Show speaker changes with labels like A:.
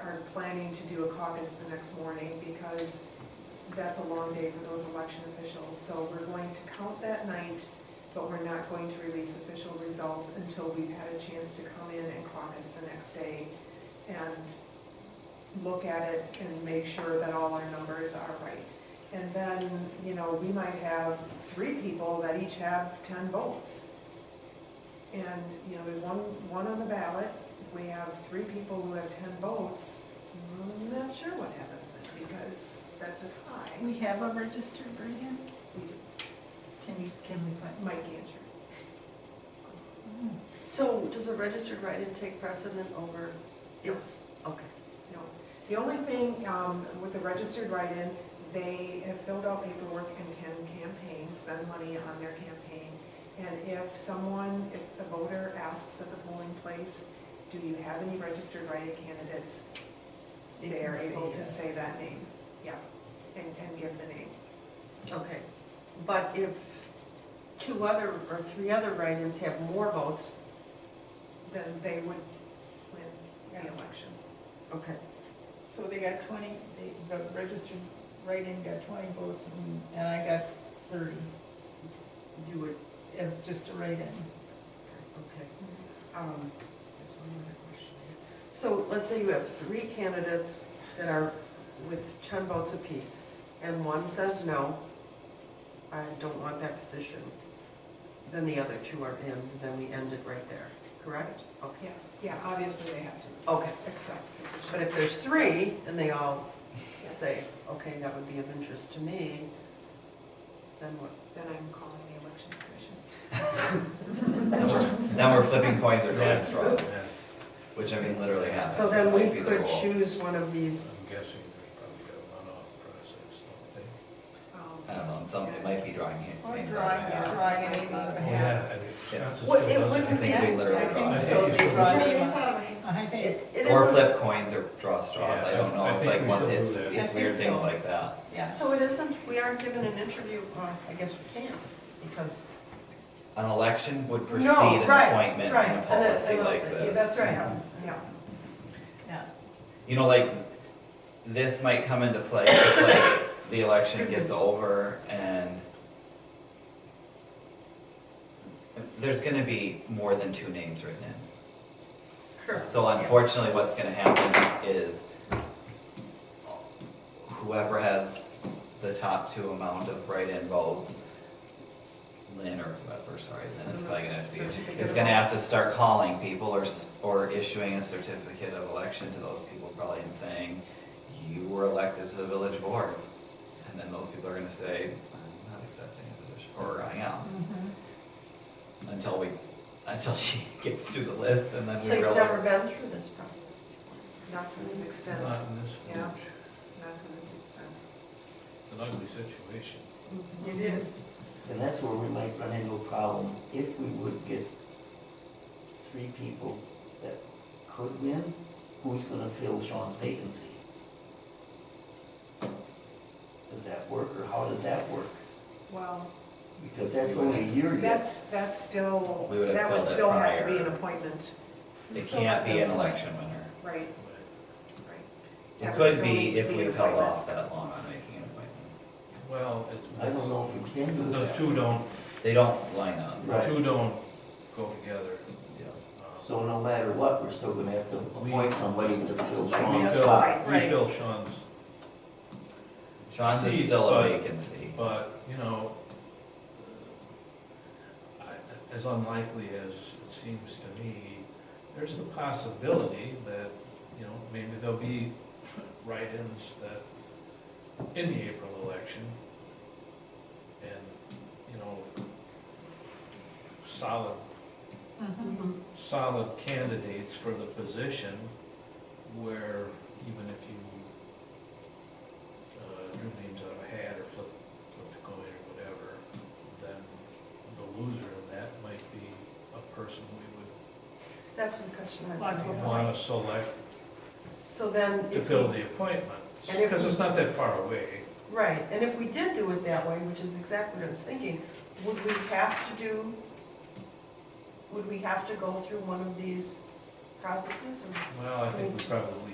A: are planning to do a caucus the next morning because that's a long day for those election officials. So we're going to count that night, but we're not going to release official results until we've had a chance to come in and caucus the next day and look at it and make sure that all our numbers are right. And then, you know, we might have three people that each have ten votes. And, you know, there's one, one on the ballot, we have three people who have ten votes, I'm not sure what happens then, because that's a tie.
B: We have a registered Brian? Can you, can we find?
A: Mike Gancher.
C: So does a registered write-in take precedent over if, okay.
A: No, the only thing um, with the registered write-in, they have filled out paperwork and can campaign, spend money on their campaign. And if someone, if the voter asks at the polling place, do you have any registered write-in candidates?
B: They can
A: They are
B: say
A: able to
B: yes.
A: say that name, yeah, and, and give the name.
C: Okay, but if two other or three other write-ins have more votes,
A: Then they would win the
B: Yeah.
A: election.
C: okay,
B: So they got twenty, they, the registered write-in got twenty votes and- and I got thirty
C: you would,
B: as just a write-in.
C: okay.
B: Mm-hmm.
C: Um, there's one other question here. So let's say you have three candidates that are with ten votes apiece, and one says no, I don't want that position, then the other two are in, then we end it right there, correct? Okay,
A: Yeah, yeah, obviously they have to
C: okay.
A: accept the position.
C: But if there's three, and they all say, okay, that would be of interest to me, then what?
A: Then I'm calling the elections commission.
D: Now we're- now we're flipping coins or drawing straws, which I mean literally happens.
C: So then
D: Might
C: we
D: be the
C: could
D: rule.
C: choose one of these,
E: I'm guessing there's probably a runoff process, don't they?
A: Um,
D: I don't know, and some, it might be drawing names.
B: Or
D: names
B: drawing,
D: out of my
B: drawing a name out of a
A: Yeah.
B: hat.
E: I mean, Wisconsin
C: Well,
E: still
C: it
E: does
D: I
C: wouldn't-
D: think we
B: I
D: literally draw.
B: think
E: I
B: so,
E: think
B: they
E: it's-
B: draw
E: Sure,
B: names. I think,
C: it it
D: Or
C: isn't-
D: flip coins or draw straws,
E: Yeah,
D: I don't
E: I-
D: know,
E: I
D: it's
E: think
D: like,
E: we
D: one-
E: should do
D: it's,
E: that.
B: I
D: it's
B: think
D: weird things
B: so.
D: like that.
B: yeah.
C: so it isn't, we aren't given an interview, well, I guess we can't, because.
D: An election would precede
C: No,
D: an
C: right,
D: appointment
C: right,
D: and a
C: and a-
D: policy
C: and a-
D: like
C: yeah,
D: this.
C: that's right.
A: Yeah,
B: Yeah.
D: You know, like, this might come into play if like the election gets over and there's gonna be more than two names written in.
C: Sure.
D: So unfortunately, what's gonna happen is whoever has the top two amount of write-in votes, Lynn or whoever, sorry, then it's probably gonna have to be,
C: Certificate
D: it's
C: of
D: gonna
C: vote.
D: have to start calling people or, s- or issuing a certificate of election to those people probably and saying, you were elected to the village board. And then those people are gonna say, I'm not accepting a position, or I am
C: Mm-hmm.
B: Mhm.
D: until we, until she gets through the list and then
C: So
D: we
C: you've
D: realize.
C: never been through this process before?
A: not to this extent, not
D: Uh-huh.
E: Not in this
A: Yeah.
E: village.
A: to this extent.
E: It's an ugly situation.
C: It is.
F: And that's where we might run into a problem, if we would get three people that could win, who's gonna fill Sean's vacancy? Does that work, or how does that work?
A: Well,
F: Because that's only a year yet.
A: that's, that's still,
D: We would have
A: that would
D: filled it
A: still have to be an
D: prior.
A: appointment,
D: It can't be an election winner.
A: right, right.
D: It
A: That would
D: could
A: still need
D: be
A: to
D: if
A: be
D: we've held
A: appointment.
D: off that long on making an appointment.
E: Well, it's.
F: I don't know if we can do
E: The
F: that.
E: two don't,
D: They don't line up.
E: the
F: Right.
E: two don't go together. Um,
F: So no matter what, we're still gonna have to appoint somebody to fill
E: We
F: Sean's
E: fill,
F: spot.
E: we
B: Right.
E: fill Sean's,
D: Sean's is
E: Steve,
D: still a
E: but-
D: vacancy.
E: but, you know, I- as unlikely as it seems to me, there's the possibility that, you know, maybe there'll be write-ins that, in the April election, and, you know, solid
B: Mhm.
E: solid candidates for the position where even if you uh, drew names out of a hat or flipped, flipped a coin or whatever, then the loser in that might be a person we
C: That's one question I
B: Like
E: would
B: what?
C: was.
E: want to select
C: So then.
E: to
C: if
E: fill
C: we-
E: the appointment,
C: And if-
E: because it's not that far away.
C: Right, and if we did do it that way, which is exactly what I was thinking, would we have to do, would we have to go through one of these processes? or-
E: Well, I think we probably